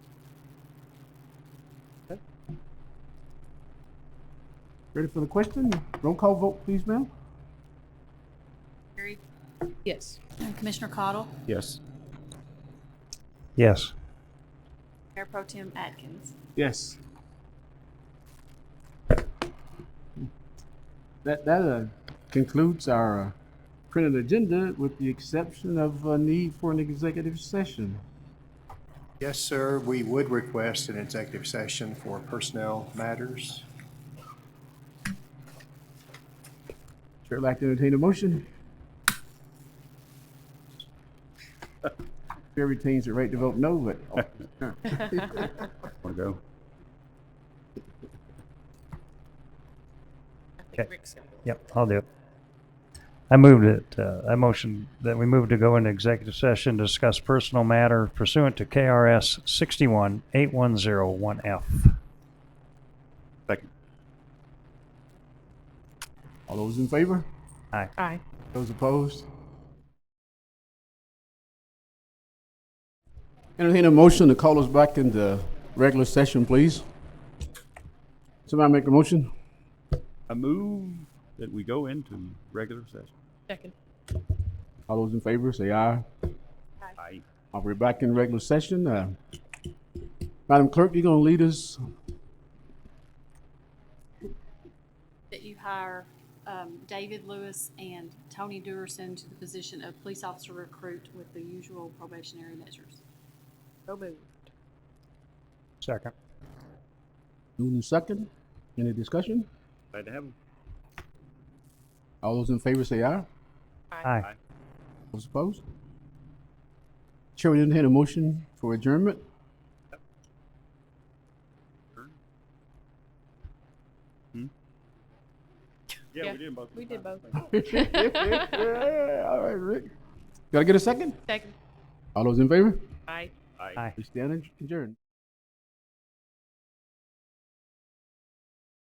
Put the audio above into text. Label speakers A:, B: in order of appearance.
A: Ready for the question? Roll call vote, please, ma'am.
B: Carried.
C: Yes.
B: And Commissioner Cottle,
D: Yes.
E: Yes.
B: Mayor Pro Tem Atkins.
A: Yes. That, that uh, concludes our uh, printed agenda with the exception of a need for an executive session.
F: Yes, sir, we would request an executive session for personnel matters.
A: Chair would like to entertain a motion. Chair retains the right to vote no, but
D: Want to go?
E: Okay. Yep, I'll do it. I moved it, uh, I motioned that we move to go into executive session, to discuss personal matter pursuant to KRS sixty-one eight one zero one F.
D: Second.
A: all those in favor?
E: Aye.
C: Aye.
A: Those opposed? Entertain a motion to call us back into regular session, please. Somebody make a motion?
D: I move that we go into regular session.
C: Second.
A: All those in favor, say aye.
D: Aye.
A: Uh, We're back in regular session. Uh, Madam Clerk, you gonna lead us?
B: That you hire um, David Lewis and Tony Durson to the position of police officer recruit with the usual probationary measures.
C: So moved.
E: Second.
A: Moving in second. Any discussion?
D: Glad to have him.
A: All those in favor, say aye.
E: Aye.
A: Those opposed? Chair, we entertain a motion for adjournment.
D: Yeah, Hmm?
C: Yeah,
D: we did both.
C: We did both.
A: Yeah, All right, Rick. Gotta get a second?
C: Second.
A: All those in favor?
C: Aye.
D: Aye.
E: Aye.
A: We stand adjourned.